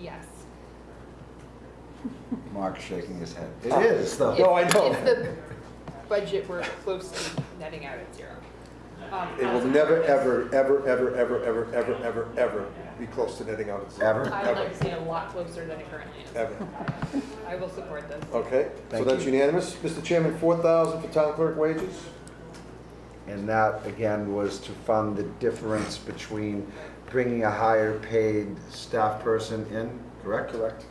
Yes. Mark's shaking his head. It is, Oh, though. If- No, I know. If the budget were close to netting out at zero. Um, It will never, ever, ever, ever, ever, ever, ever, ever, ever be close to netting out its. Ever? I would like to see it a lot closer than it currently is. Ever. I will support this. Okay, so Thank that's you. unanimous. Mr. Chairman, four thousand for town clerk wages? And that, again, was to fund the difference between bringing a higher paid staff person in, correct? Correct.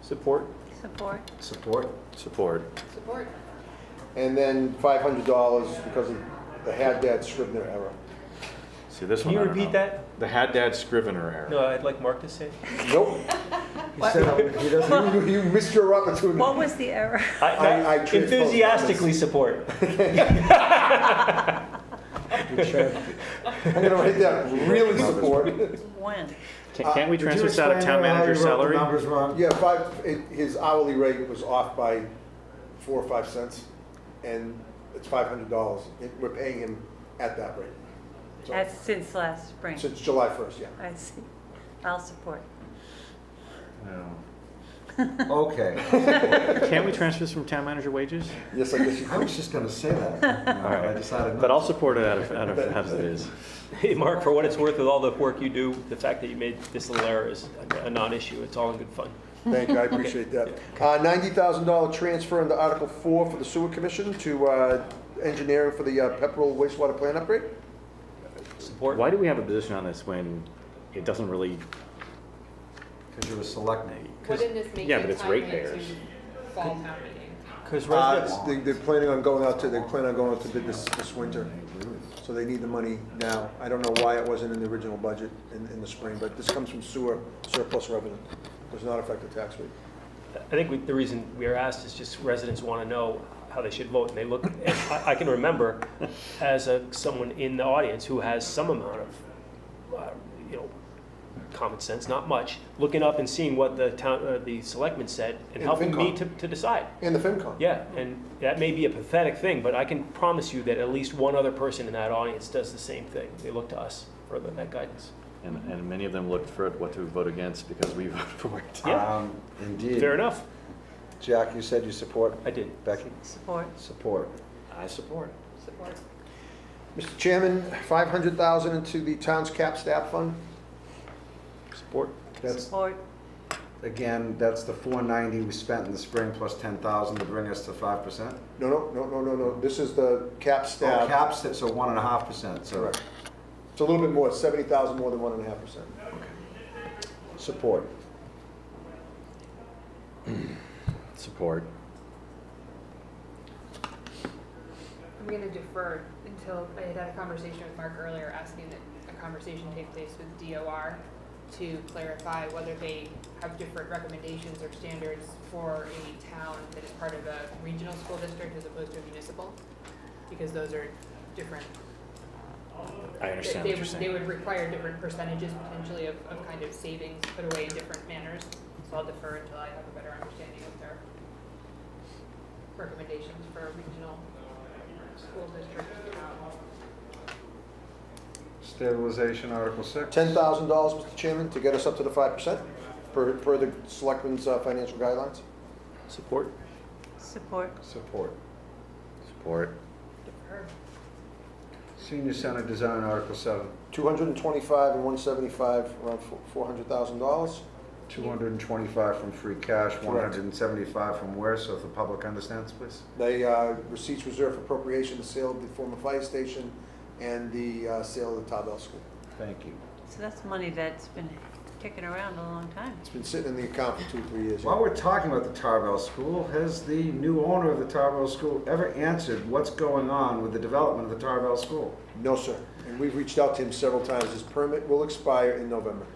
Support? Support. Support? Support. Support. And then five hundred dollars because of the Haddad Scribner error. See, this Can one, you I don't repeat know. that? The Haddad Scrivener error. No, I'd like Mark to say. it. Nope, He said he doesn't, you, you missed your What opportunity. was the error? I, I- I transposed enthusiastically support. I'm gonna write that, really support. When? Can- Can't we Uh, did you transfer this out of explain town how you manager wrote salary? the numbers wrong? Yeah, five, it, his hourly rate was off by four or five cents, and it's five hundred dollars. We're paying him at that rate. So- That's since last spring. Since July first, yeah. I see. I'll support. No. Okay, Can't we transfer this from town manager wages? Yes, I guess you I could. was just gonna say that. No, I decided But not. I'll support it out of, out of, as it is. Hey, Mark, for what it's worth, with all the work you do, the fact that you made this little error is a non-issue. It's all in good fun. Thank you, I appreciate that. Uh, ninety thousand dollar transfer into Article Four for the Sewer Commission to, uh, engineering for the uh, Pepperell wastewater plant upgrade. Support? Why do we have a position on this when it doesn't really, Because you were selecting. Wouldn't this make yeah, but it it's timely to ratepayers. fall town meeting? Because Uh, residents, they, they're planning on going out to, they're planning on going out to bid this, this winter. So they need the money now. I don't know why it wasn't in the original budget in, in the spring, but this comes from sewer surplus revenue. Does not affect the tax rate. I think we- the reason we are asked is just residents want to know how they should vote, and they look, and I I can remember as a, someone in the audience who has some amount of, uh, you know, common sense, not much, looking up and seeing what the town, uh, the selectmen said, and And helping me FinCon. to to decide. And the FinCon. Yeah, and that may be a pathetic thing, but I can promise you that at least one other person in that audience does the same thing. They look to us for the- that guidance. and, and many of them looked for it, what to vote against because we voted for it. Yeah. Um, Indeed. Fair enough. Jack, you said you support? I did. Becky? Support. Support. I support. Support. Mr. Chairman, five hundred thousand into the town's cap staff fund. Support. That's, Support. again, that's the four ninety we spent in the spring plus ten thousand to bring us to five percent? No, no, no, no, no, no. This is the cap Oh, staff. caps, it, so one and a half percent, so. Correct. It's a little bit more, seventy thousand more than one and a half percent. Support. Support. I'm gonna defer until I had had a conversation with Mark earlier, asking that a conversation take place with DOR to clarify whether they have different recommendations or standards for a town that is part of a regional school district as opposed to a municipal, because those are different. I understand what They you're saying. would require different percentages potentially of, of kind of savings put away in different manners, so I'll defer until I have a better understanding of their recommendations for regional school district. um, Stabilization, Article six. Ten thousand dollars, Mr. Chairman, to get us up to the five percent per, per the selectmen's uh, financial guidelines. Support. Support. Support. Support. Defer. Senior Center Design, Article seven, Two hundred and twenty-five and one seventy-five, around four hundred thousand dollars. two hundred and twenty-five from free cash, one hundred and seventy-five from where, so if the public understands, please. They, uh, receipts reserved for appropriation, the sale of the former fire station, and the uh, sale of the Tarbell School. Thank you. So that's money that's been kicking around a long time. It's been sitting in the account for two, three years. While we're talking about the Tarbell School, has the new owner of the Tarbell School ever answered what's going on with the development of the Tarbell School? No, sir. And we've reached out to him several times. His permit will expire in November.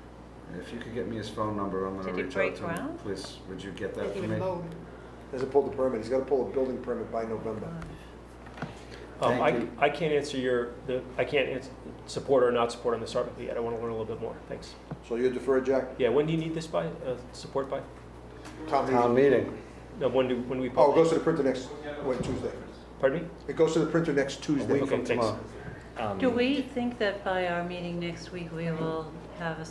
And If you could get me his phone number, I'm gonna Did he reach break out to him. ground? Please, would you get that Didn't for even me? vote. Hasn't pulled the permit. He's gotta pull a building permit by November. Um, Thank I, you. I can't answer your, the, I can't ans support or not support on this article yet. I want to learn a little bit more. Thanks. So you defer, Jack? Yeah, when do you need this by, uh, support by? Tom, Town meeting. No, when do, when do we oh, it publish? Oh, goes to the printer next, wait, Tuesday. Pardon me? It goes to the printer next Tuesday. Okay, thanks. Um, Do we think that by our meeting next week, we will have a